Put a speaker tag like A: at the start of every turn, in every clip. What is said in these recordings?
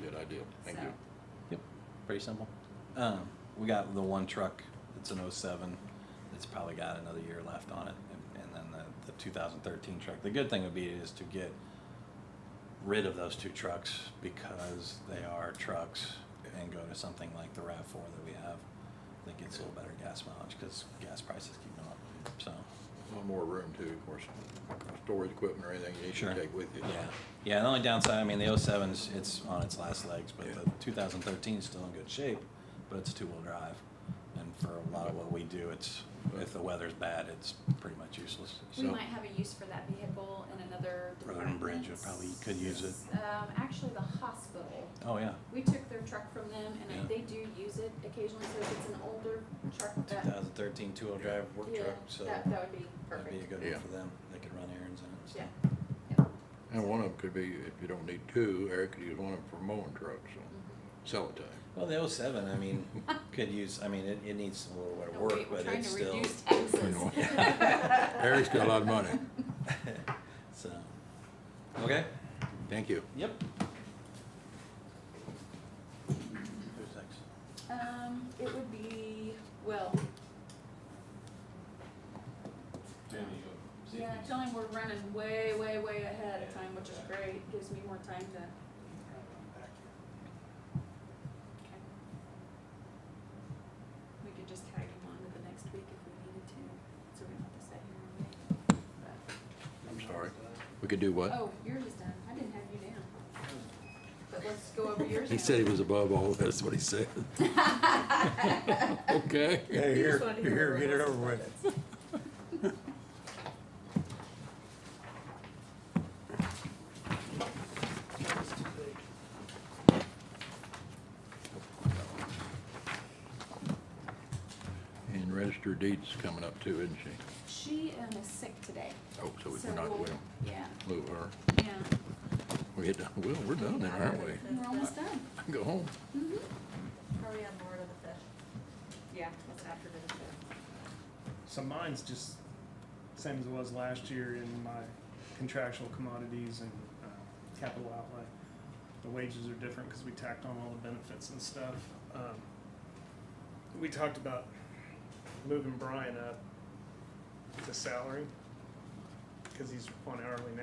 A: good idea. Thank
B: So-
A: you.
C: Yep, pretty simple. Um, we got the one truck, it's an '07. it's probably got another year left on it, and, and then the, the two thousand thirteen truck. The good thing would be is to get rid of those two trucks because they are trucks and go to something like the RAV4 that we have that gets a little better gas mileage because gas prices keep going up, so.
A: One more room too, of course, storage equipment or anything you need
C: Sure.
A: to take with you.
C: Yeah, yeah, the only downside, I mean, the 07's, it's on its last legs, but
A: Yeah.
C: the 2013 is still in good shape, but it's two-wheel drive. And for a lot of what we do, it's, if the weather's bad, it's pretty much useless,
B: We
C: so.
B: might have a use for that vehicle in another
C: Road
B: department.
C: and Bridge, it probably could use it.
B: Um, actually, the hospital,
C: Oh, yeah,
B: we took their truck from them and
C: Yeah.
B: I- they do use it occasionally, so if it's an older truck that,
C: 2013 two-wheel drive work
B: yeah,
C: truck, so
B: that, that would be
C: that'd be a
B: perfect.
C: good
A: Yeah.
C: one for them. They could run errands in it and
B: Yeah,
C: stuff.
B: yeah.
A: And one of them could be, if you don't need two, Eric could use one of them for mowing trucks, so sell it to him.
C: Well, the 07, I mean, could use, I mean, it, it needs a little bit of
B: No,
C: work,
B: wait,
C: but it's still.
B: We're trying to
A: you
B: reduce
A: know.
B: taxes.
A: Eric's got a lot of money.
C: So, okay,
A: Thank you.
C: yep. Who's next?
B: Um, it would be, well, yeah, tell him we're running way, way, way ahead of time, which is great, gives me more time to Okay. We could just tag him on to the next week if we needed to, so we don't have to sit here and wait. But-
A: I'm sorry. We could do what?
B: Oh, yours is done. I didn't have you down. But let's go over yours now.
A: He said he was above all, that's what he said. Okay.
D: Hey,
B: Here's
D: here,
B: one
D: you're here,
B: where
D: get it
B: else
D: over
B: is
D: with.
B: done.
A: And register deeds coming up too, isn't she?
B: She um, is sick today.
A: Oh, so we're not, we
B: we'll-
A: don't
B: Yeah,
A: move her.
B: yeah.
A: We hit, done- well, we're done then, aren't we?
B: We're almost done. Mm-hmm.
A: Go home.
B: Probably on board of the fifth. Yeah, it's after the fifth.
E: So mine's just same as it was last year in my contractual commodities and uh, capital outlay. The wages are different because we tacked on all the benefits and stuff. Um, We talked about moving Brian up to salary because he's on hourly now.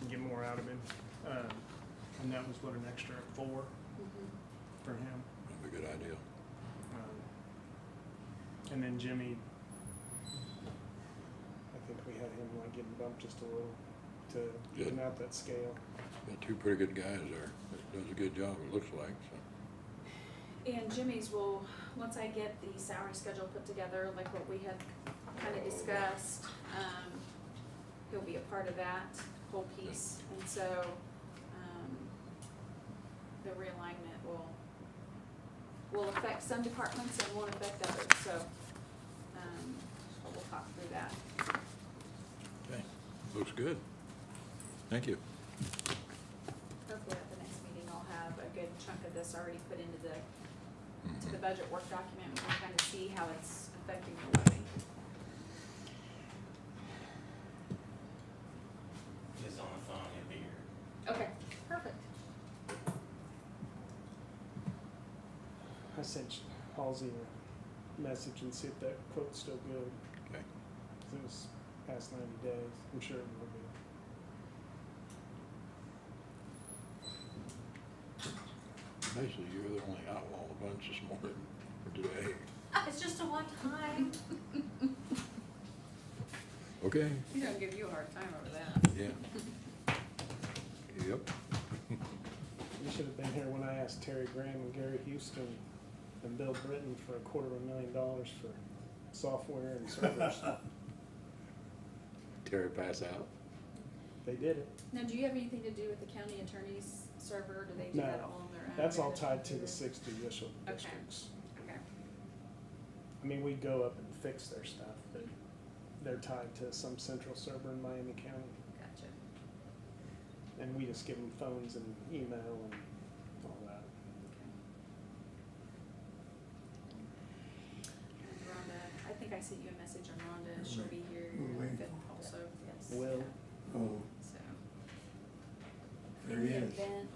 E: and Get more out of him. Um, And that was what an extra four
B: Mm-hmm.
E: for him.
A: That'd be a good idea.
E: Um, And then Jimmy, I think we had him like getting bumped just a little to even out that scale.
A: Got two pretty good guys there. that Does a good job, it looks like, so.
B: And Jimmy's will, once I get the salary schedule put together, like what we had kind of discussed, um, he'll be a part of that whole piece. And so, um, the realignment will, will affect some departments and won't affect others, so, um, but we'll talk through that.
A: Okay, looks good. Thank you.
B: Hopefully at the next meeting, I'll have a good chunk of this already put into the, to the
A: Mhm.
B: budget work document, and we'll kind of see how it's affecting the levy.
F: Just on the phone, it'd be here.
B: Okay, perfect.
E: I sent Halsey a message and see if that quote's still good.
A: Okay.
E: 'cause It was past ninety days. I'm sure it will be.
A: Basically, you're the only outlaw of the bunch this morning for today.
B: Ah,
D: It's just a one time.
A: Okay.
B: You don't give you a hard time over that.
A: Yeah. Yep.
E: You should have been here when I asked Terry Graham and Gary Houston and Bill Britton for a quarter of a million dollars for software and servers.
A: Terry pass out?
E: They did it.
B: Now, do you have anything to do with the county attorney's server, or do they do
E: No,
B: that all on their own?
E: That's all
B: They
E: tied
B: just
E: to
B: do
E: the
B: it?
E: six judicial
B: Okay.
E: districts.
B: Okay,
E: I mean, we go up and fix their stuff, but they're tied to some central server in Miami County.
B: gotcha.
E: And we just give them phones and email and all that.
B: And Rhonda, I think I sent you a message on Rhonda, she'll be here
D: Will
B: on the
D: we?
B: fifth also, yes.
E: Will.
D: Oh,
B: So.
D: there
B: In
D: he
B: the
D: is.
B: event